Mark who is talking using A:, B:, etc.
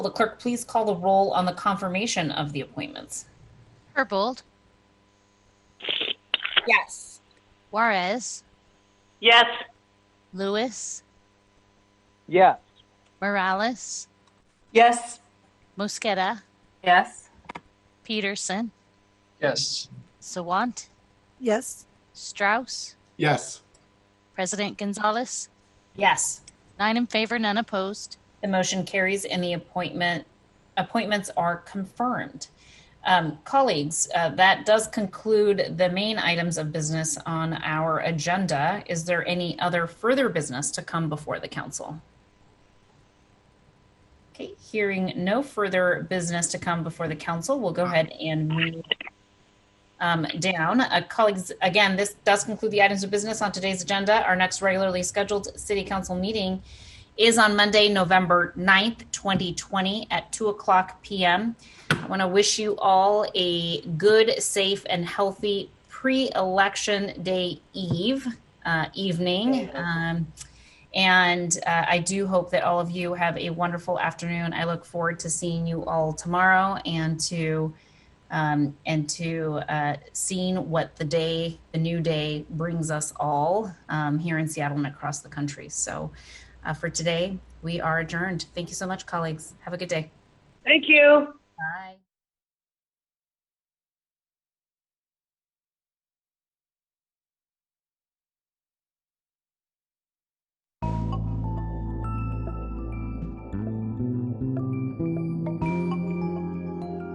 A: Will the clerk please call the roll on the confirmation of the appointments?
B: Herbold,
A: Yes.
B: Juarez,
C: Yes.
B: Lewis,
D: Yes.
B: Morales,
C: Yes.
B: Mosqueda,
C: Yes.
B: Peterson,
D: Yes.
B: Sawant,
E: Yes.
B: Strauss,
F: Yes.
B: President Gonzalez,
A: Yes.
B: nine in favor, none opposed.
A: The motion carries and the appointment, appointments are confirmed. Um, Colleagues, uh, that does conclude the main items of business on our agenda. Is there any other further business to come before the council? Okay, hearing no further business to come before the council, we'll go ahead and move um, down. Uh, Colleagues, again, this does conclude the items of business on today's agenda. Our next regularly scheduled city council meeting is on Monday, November 9th, 2020 at 2 o'clock p.m. I want to wish you all a good, safe, and healthy pre election day eve, uh, evening. Um, and uh, I do hope that all of you have a wonderful afternoon. I look forward to seeing you all tomorrow and to um, and to uh, seeing what the day, the new day, brings us all um, here in Seattle and across the country. So uh, for today. We are adjourned. Thank you so much, colleagues. Have a good day.
C: Thank you.
A: Bye.